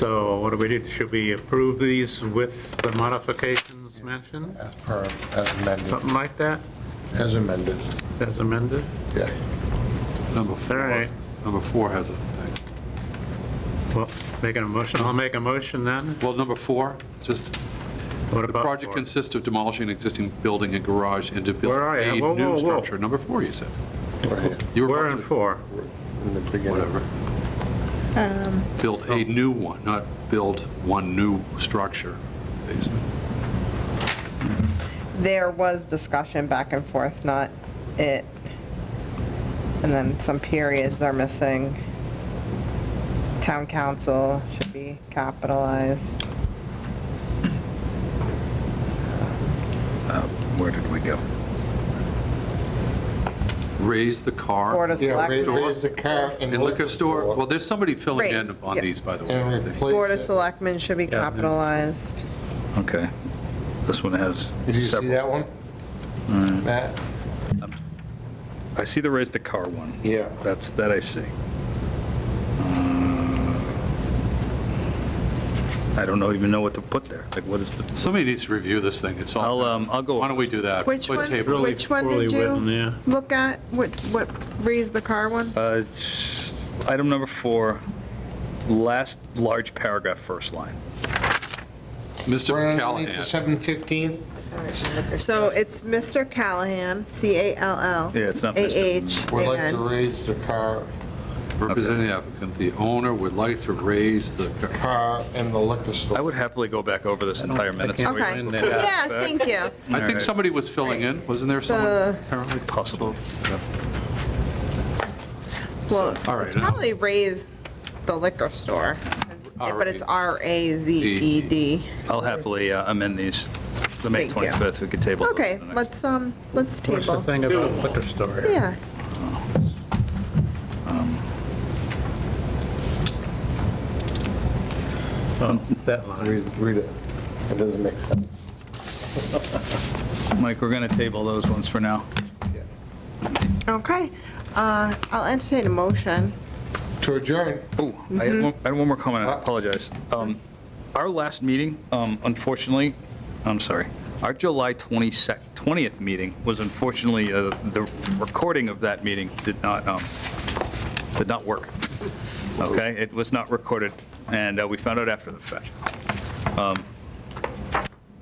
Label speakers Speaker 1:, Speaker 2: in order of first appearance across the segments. Speaker 1: So what do we do? Should we approve these with the modifications mentioned?
Speaker 2: As per, as amended,
Speaker 1: Something like that,
Speaker 2: as amended,
Speaker 1: as amended?
Speaker 2: yeah.
Speaker 3: Number
Speaker 1: All
Speaker 3: four,
Speaker 1: right,
Speaker 3: number four has a thing.
Speaker 1: well, making a motion, I'll make a motion then.
Speaker 3: Well, number four, just,
Speaker 1: What
Speaker 3: the
Speaker 1: about
Speaker 3: project
Speaker 1: four?
Speaker 3: consists of demolishing an existing building and garage and to build
Speaker 1: Where are
Speaker 3: a
Speaker 1: you? Whoa, whoa,
Speaker 3: new
Speaker 1: whoa.
Speaker 3: structure. Number four, you said.
Speaker 2: Right here,
Speaker 3: You were
Speaker 1: We're
Speaker 3: about
Speaker 1: in
Speaker 3: to-
Speaker 1: four.
Speaker 2: in the beginning.
Speaker 3: Whatever.
Speaker 4: Um,
Speaker 3: Build
Speaker 1: Oh.
Speaker 3: a new one, not build one new structure basement.
Speaker 4: There was discussion back and forth, not it. And then some periods are missing. Town council should be capitalized.
Speaker 5: Where did we go?
Speaker 3: Raise the
Speaker 4: Board
Speaker 3: car
Speaker 4: of
Speaker 2: Yeah, raise-
Speaker 4: Selectmen,
Speaker 2: raise the car and
Speaker 3: in liquor store. Well, there's somebody filling in
Speaker 4: Raise,
Speaker 3: on
Speaker 4: yeah.
Speaker 3: these, by the way.
Speaker 2: And
Speaker 4: Board of
Speaker 2: replace it.
Speaker 4: Selectmen should be
Speaker 1: Yeah.
Speaker 4: capitalized.
Speaker 5: Okay. This one has
Speaker 2: Did you see
Speaker 5: several.
Speaker 2: that one? Matt?
Speaker 5: I see the raise the car one.
Speaker 2: Yeah.
Speaker 5: That's, that I see. Uh, I don't know, even know what to put there. Like, what is the,
Speaker 3: Somebody needs to review this thing. It's
Speaker 5: I'll,
Speaker 3: all,
Speaker 5: um, I'll go.
Speaker 3: why don't we do that?
Speaker 4: Which
Speaker 3: What
Speaker 4: one-
Speaker 3: table?
Speaker 1: Really
Speaker 4: Which one did
Speaker 1: poorly
Speaker 4: you-
Speaker 1: written, Yeah.
Speaker 4: Look at, what, what, raise the car one?
Speaker 5: Uh, it's Item number four, last large paragraph, first line.
Speaker 2: Right
Speaker 3: Mr.
Speaker 2: underneath the
Speaker 3: Callahan.
Speaker 2: 715?
Speaker 4: So it's Mr. Callahan, C-A-L-L.
Speaker 5: Yeah, it's not Mr..
Speaker 2: Would like to
Speaker 4: A-H-A-N.
Speaker 2: raise the car,
Speaker 3: Representing the applicant, the owner would like to raise the,
Speaker 2: car and the liquor
Speaker 5: I
Speaker 2: store.
Speaker 5: would happily go back over this entire minutes.
Speaker 1: can't
Speaker 5: meeting
Speaker 4: Okay.
Speaker 5: before
Speaker 1: Yeah.
Speaker 4: Yeah,
Speaker 5: that.
Speaker 4: thank you.
Speaker 5: All
Speaker 3: I think
Speaker 5: right.
Speaker 3: somebody was filling in, wasn't there
Speaker 4: Uh,
Speaker 3: someone? Apparently
Speaker 5: Possible.
Speaker 4: Well,
Speaker 3: all right,
Speaker 4: it's
Speaker 3: now-
Speaker 4: probably raised the liquor store, 'cause- but it's E R-A-Z-E-D.
Speaker 5: I'll happily uh, amend these. The May
Speaker 4: Thank you.
Speaker 5: 25th, we could table. those
Speaker 4: Okay,
Speaker 5: for the next-
Speaker 4: let's, um, let's
Speaker 1: What's the
Speaker 4: table.
Speaker 1: thing about liquor store?
Speaker 4: Yeah,
Speaker 1: That line.
Speaker 2: Read read it. It doesn't make sense.
Speaker 5: Mike, we're going to table those ones for now.
Speaker 2: Yeah.
Speaker 4: okay. Uh, I'll entertain a motion.
Speaker 2: To adjourn.
Speaker 5: Oh, I had one- I had one more comment, I apologize. Um, Our last meeting, um, unfortunately, I'm sorry, our July 22nd 20th meeting was unfortunately, uh, the recording of that meeting did not, um, did not work. Okay, it was not recorded, and uh, we found out after the fact. Um,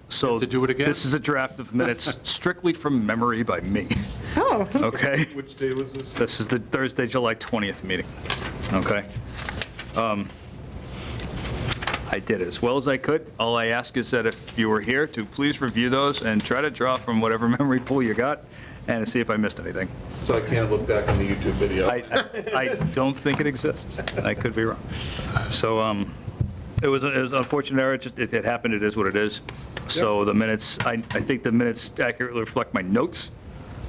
Speaker 5: So.
Speaker 3: to do it again?
Speaker 5: This is a draft of minutes strictly from memory by me,
Speaker 4: Oh,
Speaker 5: okay?
Speaker 3: Which day was this?
Speaker 5: This is the Thursday, July 20th meeting, okay? Um, I did as well as I could. All I ask is that if you were here, to please review those and try to draw from whatever memory pool you got and to see if I missed anything.
Speaker 3: So I can't look back on the YouTube video.
Speaker 5: I, I- I don't think it exists. I could be wrong. So um, it was, it was unfortunate error, It just, it it happened, it is what it is. So the minutes, I, I think the minutes accurately reflect my notes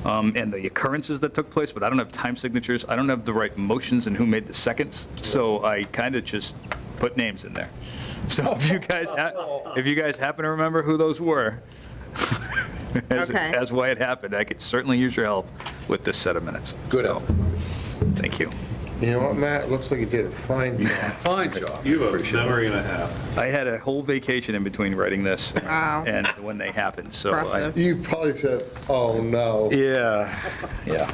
Speaker 5: um, and the occurrences that took place, but I don't have time signatures, I don't have the right motions and who made the seconds, so I kind of just put names in there. So if you guys, ha- if you guys happen to remember who those were, as,
Speaker 4: Okay.
Speaker 5: as why it happened, I could certainly use your help with this set of minutes.
Speaker 3: Good help.
Speaker 5: Thank you.
Speaker 2: You know what, Matt? Looks like you did a fine job.
Speaker 3: Fine job.
Speaker 1: You have a memory and a half.
Speaker 5: I had a whole vacation in between writing this
Speaker 4: Wow.
Speaker 5: and when they happened, so. I-
Speaker 4: Impressive.
Speaker 2: You probably said, oh, no.
Speaker 5: Yeah, yeah.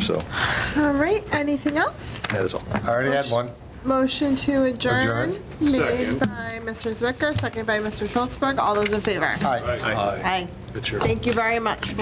Speaker 5: So
Speaker 4: all right, anything else?
Speaker 5: that is all.
Speaker 2: I already had one.
Speaker 4: Motion to
Speaker 2: Adjourn.
Speaker 4: adjourn, made by Mr. Zwicker, seconded by Mr. Schultzberg. All those in favor?
Speaker 2: Hi.
Speaker 3: Aye.
Speaker 4: Aye.
Speaker 3: It's your-
Speaker 4: Thank you very much.